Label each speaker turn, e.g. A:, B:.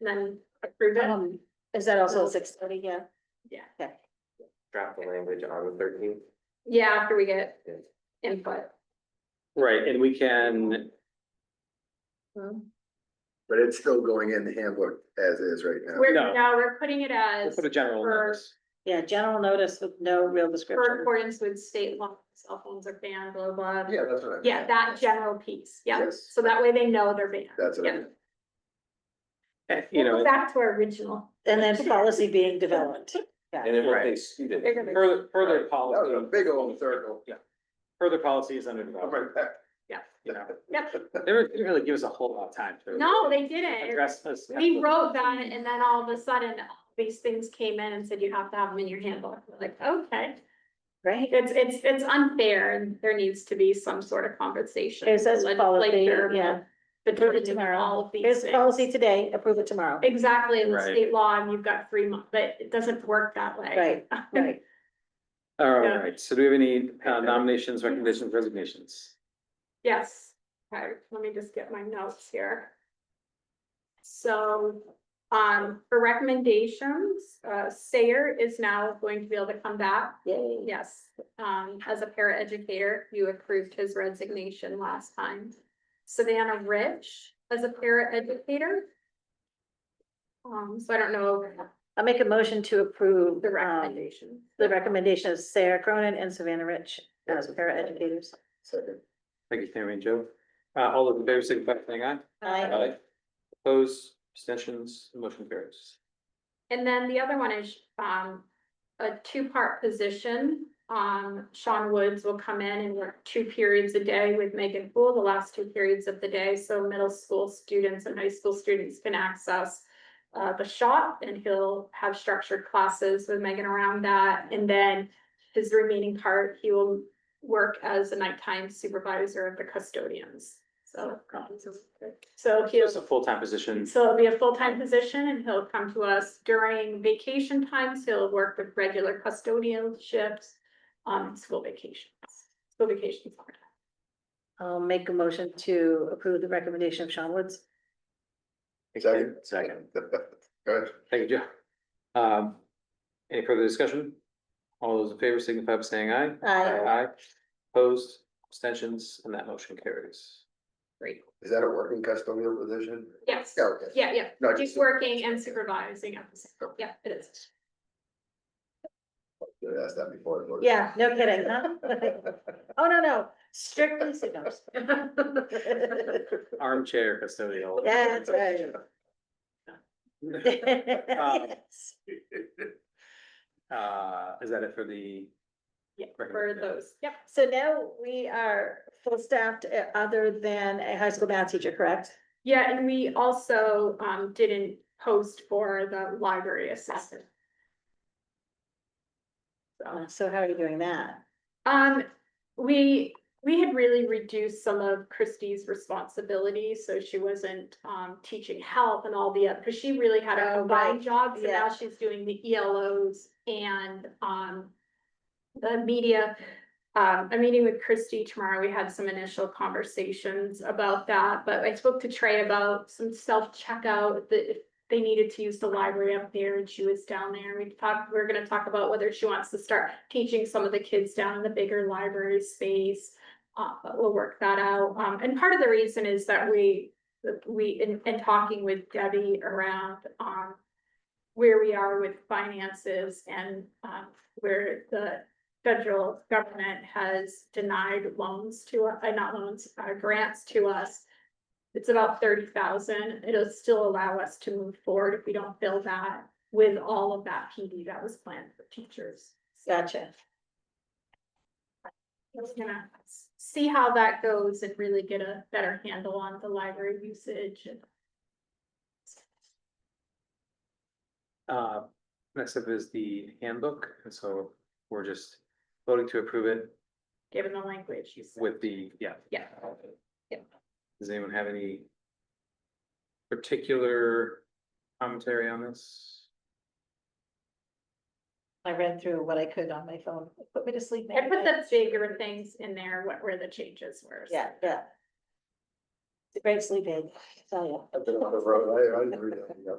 A: and then approve it.
B: Um, is that also six thirty? Yeah.
C: draft the language on the thirteenth.
A: Yeah, after we get
C: Yeah.
A: input.
D: Right, and we can,
E: But it's still going in the handbook as is right now.
A: We're,
D: No.
A: no, we're putting it
D: we'll
A: as
D: put a general
A: for-
D: notice.
B: Yeah, general notice with no real
A: for
B: description.
A: accordance with state law, cell phones are banned, blah, blah.
E: Yeah, that's what I.
A: Yeah, that general piece, yeah,
E: Yes.
A: so that way they know they're banned.
E: That's what I
A: Yeah.
E: meant.
D: Eh, You
A: We'll go
D: know,
A: Back to our original.
B: And then policy being developed.
C: And then what they
D: Right.
C: student.
A: They're gonna-
D: further, further
E: That was a
D: policy,
E: big old circle.
D: further policy is under
E: I'm right
D: development.
E: back.
D: You know,
A: Yep,
D: they were- they really give us a whole lot of time to.
A: no, they didn't.
D: Address this.
A: We wrote that and then all of a sudden, these things came in and said you have to have them in your handbook. We're Like, okay.
B: Right.
A: It's, it's, it's unfair and there needs to be some sort of compensation.
B: It says policy,
A: legislature,
B: yeah. Approve it
A: Between
B: tomorrow.
A: all of these
B: Here's the policy
A: things.
B: today, approve it tomorrow.
A: Exactly, in the
D: Right.
A: state law, and you've got three months, but it doesn't work that way.
B: Right, right.
D: All
A: Yeah.
D: right, so do we have any uh, nominations, recommendations, resignations?
A: Yes, okay, let me just get my notes here. So, um, for recommendations, uh, Sayer is now going to be able to come back.
B: Yay.
A: Yes, um, as a paraeducator, you approved his resignation last time. Savannah Rich as a paraeducator. Um, so I don't know
B: I'll make a motion to approve.
A: the
B: um,
A: recommendation.
B: The recommendation of Sarah Cronin and Savannah Rich as paraeducators.
E: Second.
D: Thank you, Tammy and Joe. Uh, all of the favor, signify by saying aye.
B: Aye.
D: Opposed, abstentions, motion carries.
A: And then the other one is, um, a two-part position. Um, Sean Woods will come in and work two periods a day with Megan Poole, the last two periods of the day, so middle school students and high school students can access. Uh, the shop and he'll have structured classes with Megan around that, and then his remaining part, he will. Work as a nighttime supervisor of the custodians, so. So he'll.
D: It's a full-time position.
A: So it'll be a full-time position and he'll come to us during vacation times. He'll work with regular custodial shifts on school vacations, school vacations. are-
B: I'll make a motion to approve the recommendation of Sean Woods.
E: Second.
D: Second.
E: Good.
D: Thank you, Joe. Um, any further discussion? All those in favor signify by saying aye.
B: Aye.
D: Aye. Opposed, abstentions, and that motion carries.
A: Great.
E: Is that a working custodial position?
A: Yes.
E: Yeah, okay.
A: Yeah, yeah.
E: No,
A: Just
E: just-
A: working and supervising at the same.
E: Okay.
A: Yeah, it is.
E: You asked that before.
B: Yeah, no kidding, huh? Oh, no, no, strictly signals. Yeah,
D: Armchair custodial.
B: that's right.
A: Um,
B: Yes.
D: Uh, is that it for the?
A: Yeah, for
D: recommendation?
A: those. Yep.
B: So now we are full staffed uh, other than a high school math teacher, correct?
A: Yeah, and we also um didn't post for the library assistant.
B: Uh, So how are you doing that?
A: Um, we, we had really reduced some of Christie's responsibilities, so she wasn't um teaching help and all the, other because she really had a
B: Oh,
A: combined
B: right.
A: job, so now
B: Yeah.
A: she's doing the ELOs and um the media. Um, I'm meeting with Christie tomorrow. We had some initial conversations about that, but I spoke to Trey about some self-checkout that if they needed to use the library up there and she was down there. We talked, we're gonna talk about whether she wants to start teaching some of the kids down in the bigger library space. Uh, but we'll work that out. Um, and part of the reason is that we, that we, in, in talking with Debbie around, um, where we are with finances and, um, where the federal government has denied loans to, uh, not loans, uh, grants to us. It's about thirty thousand. It'll still allow us to move forward if we don't fill that with all of that PD that was planned for teachers. So
B: Gotcha.
A: Just gonna s- see how that goes and really get a better handle on the library usage and
D: Uh, next up is the handbook, and so we're just voting to approve it
A: given the language you said.
D: with the, yeah.
A: Yeah. Yeah.
D: Does anyone have any particular commentary on this?
B: I read through what I could on my phone. It Put me to sleep.
A: I put
B: man.
A: the bigger things in there, what where the changes were. so.
B: Yeah, yeah. It's a great sleep aid, I tell you.
E: I've been on the road. I, I didn't read that.